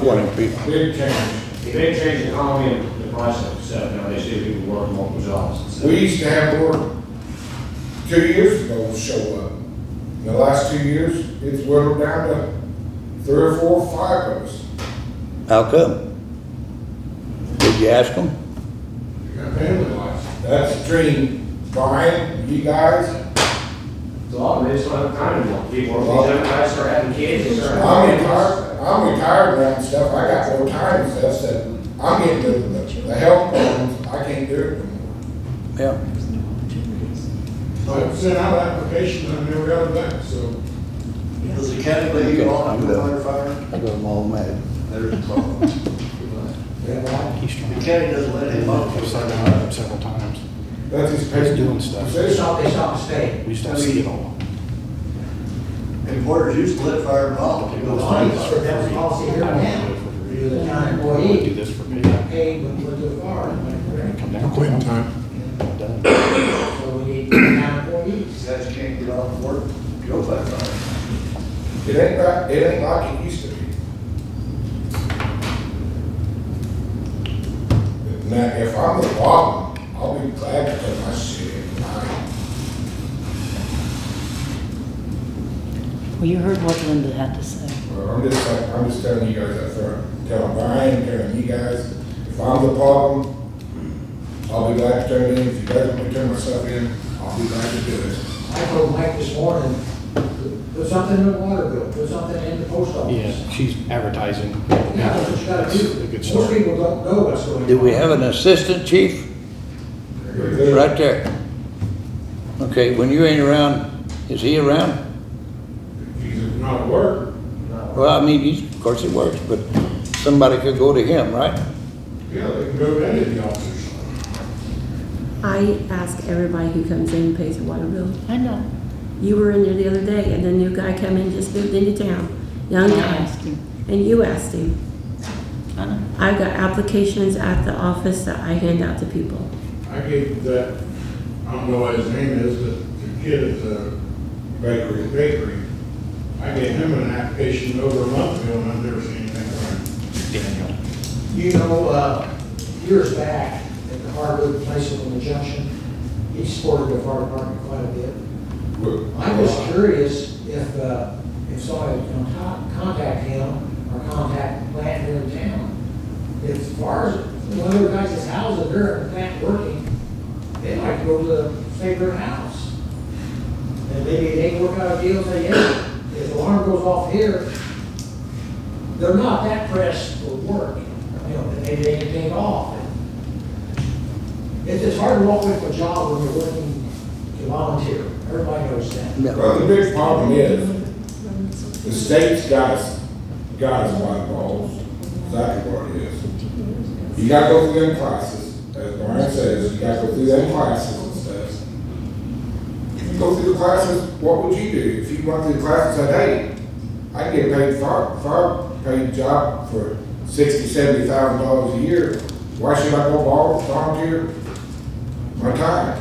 twenty people. Big change, big change economy and the price of stuff, now they see people working multiple jobs and stuff. We used to have work two years ago show up. In the last two years, it's whittled down to three or four, five of us. How come? Did you ask them? You got family lives. That's between Brian, you guys, A lot of they just don't have time anymore, people are, these young guys are having kids, they start I'm having kids. retired, I'm retired now and stuff, I got more time and stuff, so I'm getting to the, the health problems, I can't do it anymore. Yeah. I sent out applications, I never got them back, so. Does the county let you on after firefighter? I got them all mad. There's a problem. The county doesn't let him on for Started something. out up several times. That's his He's paper. doing stuff. They stopped They stop the state. We used to see it all. Employers used to let fire volunteer go That's the firefighter. policy here in town. You're the town employee, Do this for me. Come paid when you go to the farm, when you're down. Quitting time. Done. there. so we need town employees. These guys can't get off work, go firefighter. It ain't like, it ain't like it used to be. Now, if I'm the problem, I'll be glad to put my shit in line. Well, you heard what Linda had to say. Well, I'm just, like- I'm just telling you guys up front, telling Brian, telling you guys, if I'm the problem, I'll be glad to turn it in. If you guys want me to turn myself in, I'll be glad to do it. I told Mike this morning, put something in the water bill, put something in the post office. Yeah, she's advertising. Yeah, that's what you gotta That's a do. good Most start. people don't know what's going on. Do we have an assistant chief? Right there. Okay, when you ain't around, is he around? He's not at work. Well, I mean, he's, of course he works, but somebody could go to him, right? Yeah, they can go to any of the officers. I ask everybody who comes in and pays their water bill. I know. You were in there the other day, and a new guy come in, just moved into town, young And I guy, asked you. and you asked him. I know. I've got applications at the office that I hand out to people. I gave that, I don't know what his name is, but the kid at the bakery, bakery. I gave him an application over a month ago and I've never seen anything from him. Daniel. You know, uh, years back, at the Harvard place up on the junction, he supported the fire department quite a bit. I'm just curious if, uh, if somebody would con- contact him or contact the plant here in town. As far as, one of the guys' that's housed if they're at the plant working, they might go to the favorite house. And maybe they work out a deal, and say, yeah, if the alarm goes off here, they're not that pressed for work, you know, they, they can take off. It's, it's hard to walk away from a job when you're working to volunteer, everybody knows that. Well, the big problem is, the state's got us, got us by the balls, exactly what it is. You gotta go through them classes, as Brian says, you gotta go through them classes and stuff. If you go through the classes, what would you do? If you went through the classes, said, hey, I can get paid far, far paid job for sixty, seventy thousand dollars a year, why should I go vol- volunteer my time?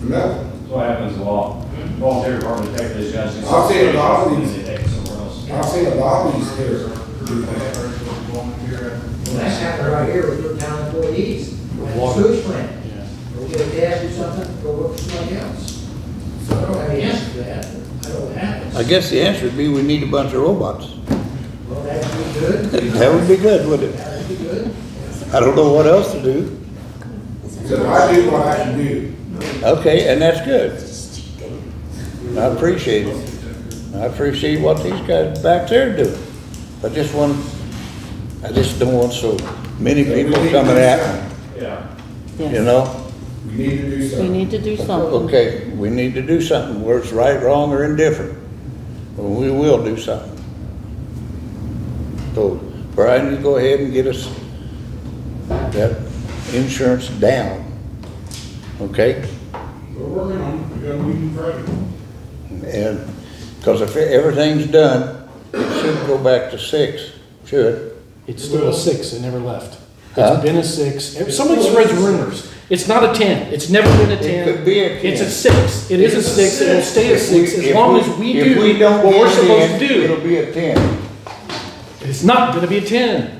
For nothing. That's what happens a lot, volunteer department, take these guys. and- I've seen a lot of these. And they take it somewhere else. I've seen a lot of these here do that. Well, that's happening right here with your town employees, at the Water. sewage plant, Yeah. go get a gas or something, go work for somebody else. So I don't have the answer to that, I know it happens. I guess the answer would be we need a bunch of robots. Well, that'd be good, That would be good, wouldn't it? that'd be good. I don't know what else to do. So I do what I can do. Okay, and that's good. I appreciate it. I appreciate what these guys back there are doing. I just want, I just don't want so many people coming at Yeah. me, you Yes. know? We need to do We something. need to do something. Okay, we need to do something, whether it's right, wrong, or indifferent. Well, we will do something. So, Brian, you go ahead and get us that insurance down, okay? We're working on it, we got a meeting Friday. And, because if everything's done, it should go back to six, should. It's still a six, it never left. Huh? It's been a six. If Somebody spreads rumors. It's not a ten. It's never been a ten. could be a 10. It's a six. It is a six. It will stay a If we- six as if long as we if do we don't what we're get it in, supposed to do. It'll be a ten. It's not gonna be a ten.